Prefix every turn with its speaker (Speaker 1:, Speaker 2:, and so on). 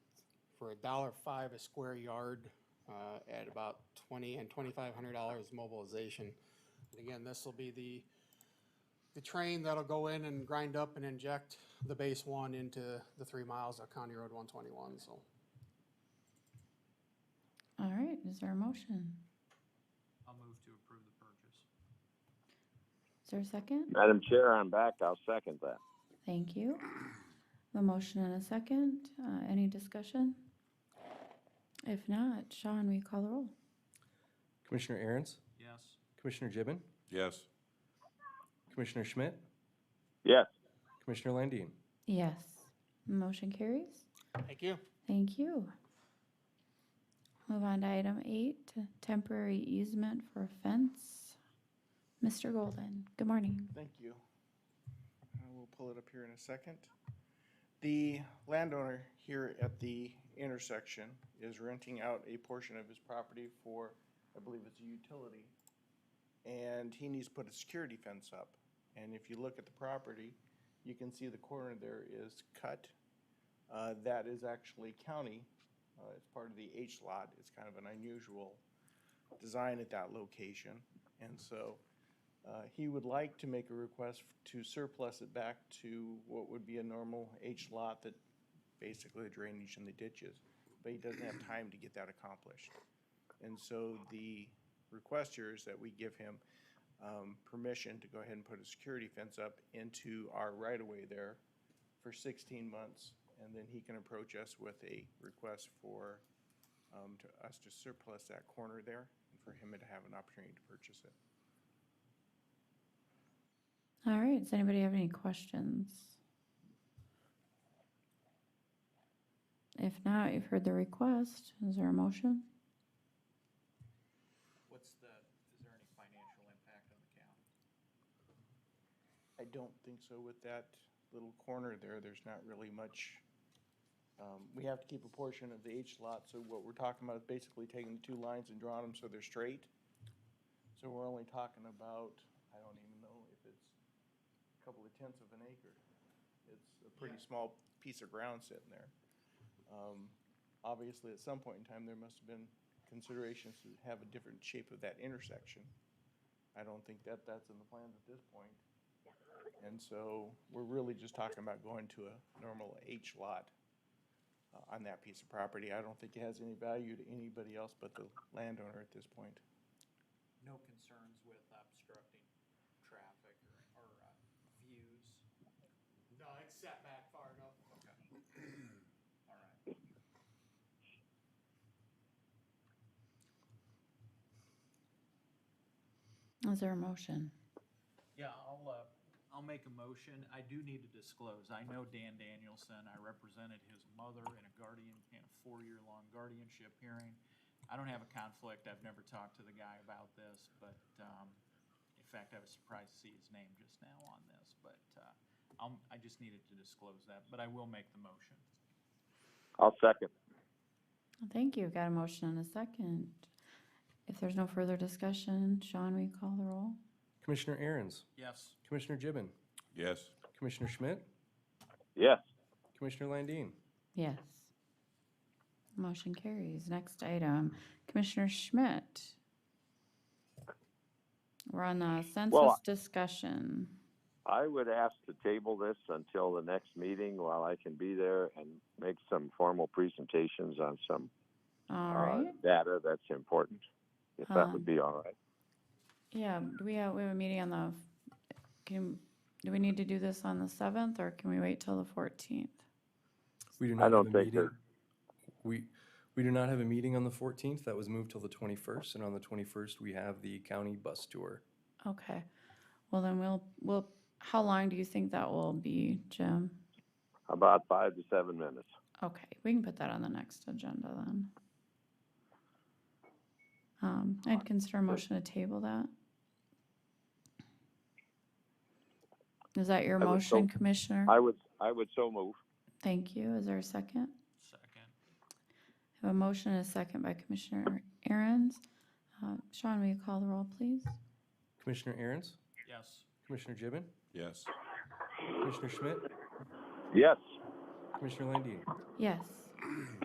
Speaker 1: for a dollar five a square yard, uh, at about twenty and twenty-five hundred dollars mobilization. And again, this will be the, the train that'll go in and grind up and inject the base one into the three miles of County Road one twenty-one, so.
Speaker 2: All right, is there a motion?
Speaker 3: I'll move to approve the purchase.
Speaker 2: Is there a second?
Speaker 4: Madam Chair, I'm back. I'll second that.
Speaker 2: Thank you. A motion and a second. Uh, Any discussion? If not, Sean, will you call the roll?
Speaker 5: Commissioner Aaron's,
Speaker 3: Yes.
Speaker 5: Commissioner Gibbon,
Speaker 6: yes,
Speaker 5: Commissioner Schmidt,
Speaker 4: Yes,
Speaker 5: Commissioner Landine.
Speaker 2: Yes. Motion carries.
Speaker 1: Thank you.
Speaker 2: Thank you. Move on to item eight, temporary easement for fence. Mr. Golden, good morning.
Speaker 7: Thank you. Uh, We'll pull it up here in a second. The landowner here at the intersection is renting out a portion of his property for, I believe it's a utility. And he needs to put a security fence up. And if you look at the property, you can see the corner there is cut. Uh, That is actually county. Uh, It's part of the H lot. It's kind of an unusual design at that location. And so uh, He would like to make a request to surplus it back to what would be a normal H lot that basically the drainage and the ditches, but he doesn't have time to get that accomplished. And so the request here is that we give him um, permission to go ahead and put a security fence up into our right-of-way there for 16 months, and then he can approach us with a request for um, to us to surplus that corner there and for him to have an opportunity to purchase it.
Speaker 2: All right, does anybody have any questions? If not, you've heard the request. Is there a motion?
Speaker 3: What's the, is there any financial impact on the county?
Speaker 7: I don't think so with that little corner there, there's not really much. Um, we have to keep a portion of the H lot, so what we're talking about is basically taking the two lines and drawing them so they're straight. So we're only talking about, I don't even know if it's a couple of tenths of an acre. It's a pretty small piece of ground sitting there. Um, obviously, at some point in time, there must have been considerations to have a different shape of that intersection. I don't think that that's in the plans at this point. And so we're really just talking about going to a normal H lot uh, on that piece of property. I don't think it has any value to anybody else but the landowner at this point.
Speaker 3: No concerns with obstructing traffic or, or uh, views?
Speaker 1: No, it's set back far enough.
Speaker 3: All right.
Speaker 2: Is there a motion?
Speaker 3: Yeah, I'll, uh, I'll make a motion. I do need to disclose. I know Dan Danielson. I represented his mother in a guardian, in a four-year-long guardianship hearing. I don't have a conflict. I've never talked to the guy about this, but, um, in fact, I was surprised to see his name just now on this, but, uh, I'm, I just needed to disclose that, but I will make the motion.
Speaker 4: I'll second.
Speaker 2: Thank you. Got a motion and a second. If there's no further discussion, Sean, will you call the roll?
Speaker 5: Commissioner Aaron's,
Speaker 3: Yes.
Speaker 5: Commissioner Gibbon,
Speaker 6: yes.
Speaker 5: Commissioner Schmidt,
Speaker 4: Yes,
Speaker 5: Commissioner Landine.
Speaker 2: Yes. Motion carries. Next item, Commissioner Schmidt. We're on the census discussion.
Speaker 4: I would ask to table this until the next meeting while I can be there and make some formal presentations on some
Speaker 2: All
Speaker 4: uh,
Speaker 2: right.
Speaker 4: data that's important, if that
Speaker 2: Um,
Speaker 4: would be all right.
Speaker 2: Yeah, do we have, we have a meeting on the, can, do we need to do this on the seventh or can we wait till the fourteenth?
Speaker 5: We do
Speaker 4: I
Speaker 5: not have
Speaker 4: don't
Speaker 5: a
Speaker 4: think
Speaker 5: meeting.
Speaker 4: that-
Speaker 5: We, we do not have a meeting on the fourteenth. That was moved till the twenty-first, and on the twenty-first, we have the county bus tour.
Speaker 2: Okay, well then we'll, we'll, how long do you think that will be, Jim?
Speaker 4: About five to seven minutes.
Speaker 2: Okay, we can put that on the next agenda then. Um, I'd consider a motion to table that. Is that your
Speaker 4: I would so-
Speaker 2: motion, Commissioner?
Speaker 4: I would, I would so move.
Speaker 2: Thank you. Is there a second?
Speaker 3: Second.
Speaker 2: I Have a motion and a second by Commissioner Aaron's. Uh, Sean, will you call the roll, please?
Speaker 5: Commissioner Aaron's,
Speaker 3: Yes.
Speaker 5: Commissioner Gibbon,
Speaker 6: Yes.
Speaker 5: Commissioner Schmidt,
Speaker 4: Yes.
Speaker 5: Commissioner Landine.
Speaker 2: Yes.